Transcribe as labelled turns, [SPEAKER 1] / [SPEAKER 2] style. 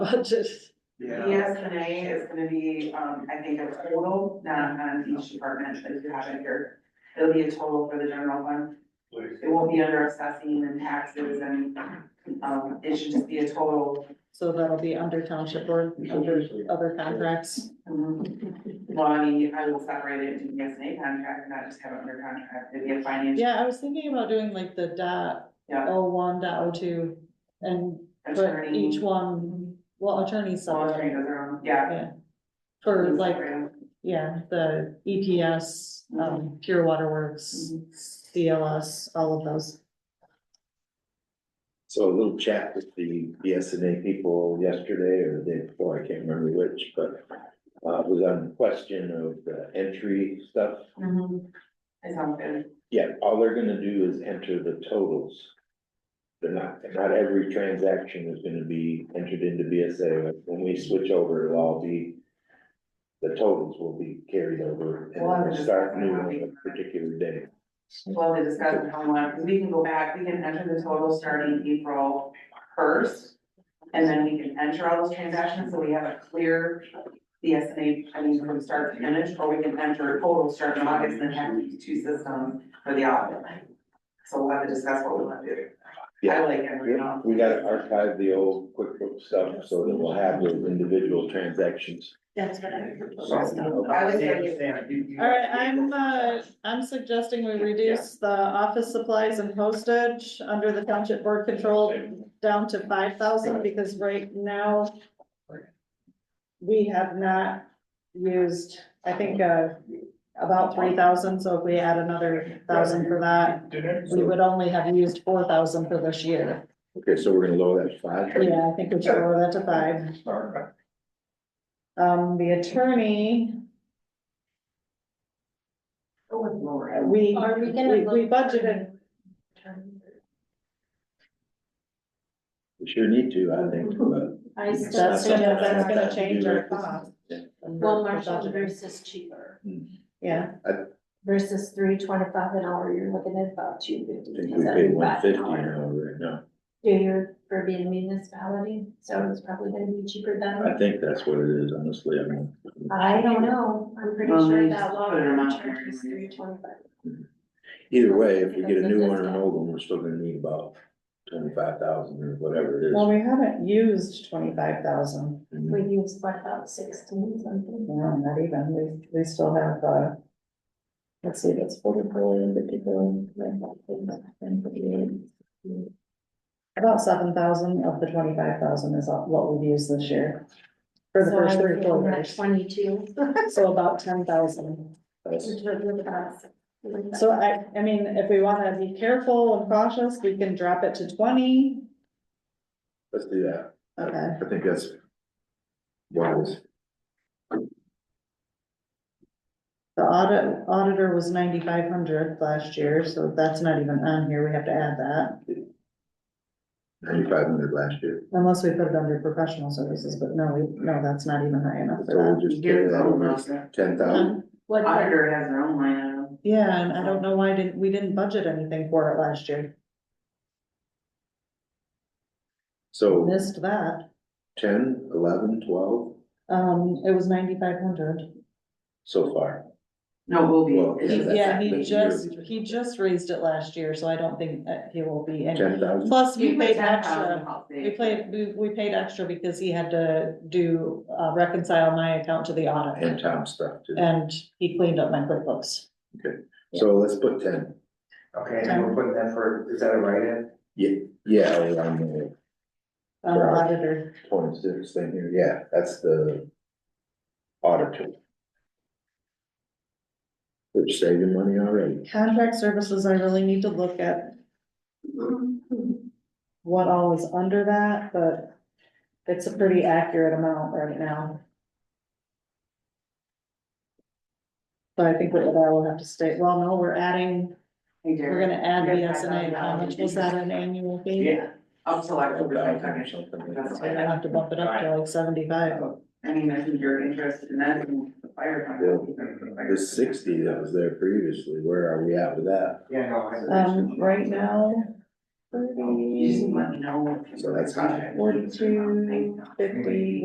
[SPEAKER 1] budget.
[SPEAKER 2] ESNA is gonna be, um, I think a total, not on each department, but if you have it here, it'll be a total for the general fund. It won't be under assessing and taxes and, um, it should just be a total.
[SPEAKER 1] So that'll be under township or under other contracts.
[SPEAKER 2] um,
[SPEAKER 1] Mm-hmm.
[SPEAKER 2] Well, I mean, I will separate it into ESNA contract, and not just have it under contract, it'd be a financial.
[SPEAKER 1] Yeah, I was thinking about doing like the dot
[SPEAKER 2] Yeah.
[SPEAKER 1] oh one, dot oh two, and but
[SPEAKER 2] attorney.
[SPEAKER 1] each one, well, attorneys
[SPEAKER 2] Well, attorney
[SPEAKER 1] separate.
[SPEAKER 2] does their own, yeah. Mm-hmm.
[SPEAKER 1] Yeah. For like, yeah, the EPS, um, Pure Water
[SPEAKER 2] Mm-hmm.
[SPEAKER 1] Works, CLS, all of those.
[SPEAKER 3] So a little chat with the BSNA people yesterday or the day before, I can't remember which, but uh, was on the question of the entry stuff.
[SPEAKER 2] Mhm. It sounds good.
[SPEAKER 3] Yeah, all they're gonna do is enter the totals. They're not, not every transaction is gonna be entered into BSA. When we switch over, it'll all be, the totals will be carried over and
[SPEAKER 2] Well, I
[SPEAKER 3] we'll
[SPEAKER 2] was just
[SPEAKER 3] start
[SPEAKER 2] talking
[SPEAKER 3] new
[SPEAKER 2] about
[SPEAKER 3] on
[SPEAKER 2] the-
[SPEAKER 3] a particular day.
[SPEAKER 2] Well, they discussed how much, we can go back, we can enter the total starting April first. And then we can enter all those transactions, so we have a clear BSNA, I mean, from start to finish, or we can enter total starting August and have these two systems for the audit. So we'll have to discuss what we want to do. I
[SPEAKER 3] Yeah.
[SPEAKER 2] like everything else.
[SPEAKER 3] We gotta archive the old QuickBooks stuff so that we'll have those individual transactions.
[SPEAKER 1] That's
[SPEAKER 2] I was thinking-
[SPEAKER 1] All right, I'm, uh, I'm suggesting we reduce the office supplies and postage under the township board control down to five thousand, because right now we have not used, I think, uh, about three thousand, so if we add another thousand for that, we would only have used four thousand for this year.
[SPEAKER 3] Okay, so we're gonna lower that to five?
[SPEAKER 1] Yeah, I think we should lower that to five. Um, the attorney,
[SPEAKER 2] Go with Laura.
[SPEAKER 1] we,
[SPEAKER 4] Are we gonna?
[SPEAKER 1] we we
[SPEAKER 4] look-
[SPEAKER 1] budgeted
[SPEAKER 3] We sure need to, I think, but.
[SPEAKER 4] I
[SPEAKER 3] It's not
[SPEAKER 4] still
[SPEAKER 1] That's gonna,
[SPEAKER 4] suggest
[SPEAKER 1] that's
[SPEAKER 4] that
[SPEAKER 1] gonna change our cost.
[SPEAKER 4] one marshal versus cheaper
[SPEAKER 1] Yeah,
[SPEAKER 4] versus three twenty-five an hour, you're looking at about two
[SPEAKER 3] I
[SPEAKER 4] fifty.
[SPEAKER 3] think we pay one fifty an hour right now.
[SPEAKER 4] Do your, for being a municipality, so it's probably gonna be cheaper
[SPEAKER 3] I
[SPEAKER 4] than,
[SPEAKER 3] think that's what it is, honestly, I mean.
[SPEAKER 4] I don't know, I'm pretty
[SPEAKER 2] Well,
[SPEAKER 4] sure
[SPEAKER 2] we
[SPEAKER 4] that
[SPEAKER 2] just
[SPEAKER 4] law
[SPEAKER 2] put it amount
[SPEAKER 4] charge
[SPEAKER 2] there.
[SPEAKER 4] is three twenty-five.
[SPEAKER 3] Either way, if we get a new one or an old one, we're still gonna need about twenty-five thousand or whatever it
[SPEAKER 1] well,
[SPEAKER 3] is.
[SPEAKER 1] we haven't used twenty-five thousand,
[SPEAKER 3] Mhm.
[SPEAKER 4] We use what, about sixteen something?
[SPEAKER 1] no, not even, we, we still have, uh, let's see, that's forty-four in particular. About seven thousand of the twenty-five thousand is what we've used this year. For the
[SPEAKER 4] So
[SPEAKER 1] first
[SPEAKER 4] I
[SPEAKER 1] three
[SPEAKER 4] would give them
[SPEAKER 1] quarters,
[SPEAKER 4] Twenty-two,
[SPEAKER 1] so about ten thousand.
[SPEAKER 3] That's-
[SPEAKER 4] which would look about.
[SPEAKER 1] So I, I mean, if we wanna be careful and cautious, we can drop it to twenty.
[SPEAKER 3] Let's do that.
[SPEAKER 1] Okay.
[SPEAKER 3] I think that's wise.
[SPEAKER 1] The audit, auditor was ninety-five hundred last year, so that's not even on here, we have to add that.
[SPEAKER 3] Ninety-five hundred last year,
[SPEAKER 1] Unless we put it under professional services, but no, we, no, that's not even high enough
[SPEAKER 3] so
[SPEAKER 1] for
[SPEAKER 3] we'll
[SPEAKER 1] that.
[SPEAKER 3] just carry that over ten
[SPEAKER 1] Uh-huh.
[SPEAKER 3] thousand.
[SPEAKER 4] What,
[SPEAKER 2] Auditor has their own line item.
[SPEAKER 1] Yeah, and I don't know why didn't, we didn't budget anything for it last year,
[SPEAKER 3] So
[SPEAKER 1] missed that,
[SPEAKER 3] ten, eleven, twelve
[SPEAKER 1] um, it was ninety-five hundred.
[SPEAKER 3] so far.
[SPEAKER 2] No, will be.
[SPEAKER 3] Well,
[SPEAKER 2] It's just-
[SPEAKER 3] that's-
[SPEAKER 1] Yeah, he
[SPEAKER 3] that's
[SPEAKER 1] just,
[SPEAKER 3] yearly.
[SPEAKER 1] he just raised it last year, so I don't think that he will be any,
[SPEAKER 3] Ten thousand?
[SPEAKER 1] plus we
[SPEAKER 2] You um, put
[SPEAKER 1] paid
[SPEAKER 2] ten
[SPEAKER 1] extra.
[SPEAKER 2] thousand, I'll say.
[SPEAKER 1] uh, We played, we, we paid extra because he had to do, uh, reconcile my account to the audit,
[SPEAKER 3] And Tom stuff too.
[SPEAKER 1] and he cleaned up my QuickBooks.
[SPEAKER 3] So let's put ten.
[SPEAKER 5] Okay, and we're putting that for, is that a write-in?
[SPEAKER 3] Yeah, on the
[SPEAKER 1] Um,
[SPEAKER 3] Right.
[SPEAKER 1] auditor,
[SPEAKER 3] point six thing here, yeah, that's the auditor. Which saving money already.
[SPEAKER 1] contract services, I really need to look at what all is under that, but it's a pretty accurate amount right now. So I think that I will have to state, well, no, we're adding,
[SPEAKER 2] Hey, Derek.
[SPEAKER 1] we're gonna add
[SPEAKER 2] We're
[SPEAKER 1] the
[SPEAKER 2] gonna
[SPEAKER 1] S and A,
[SPEAKER 2] add
[SPEAKER 1] how much was that an annual fee?
[SPEAKER 2] uh, Yeah, up till October
[SPEAKER 3] $5,000 or
[SPEAKER 2] twenty-second.
[SPEAKER 3] something like
[SPEAKER 2] That's
[SPEAKER 1] I
[SPEAKER 2] what I-
[SPEAKER 1] have to bump it up to like seventy-five.
[SPEAKER 2] I mean, I think you're interested in that, and the fire.
[SPEAKER 3] that. The sixty that was there previously, where are we at with that?
[SPEAKER 5] Yeah, no, I.
[SPEAKER 1] Um, right Um, now,
[SPEAKER 6] You just let me know.
[SPEAKER 2] So that's high.
[SPEAKER 3] One, two, fifty.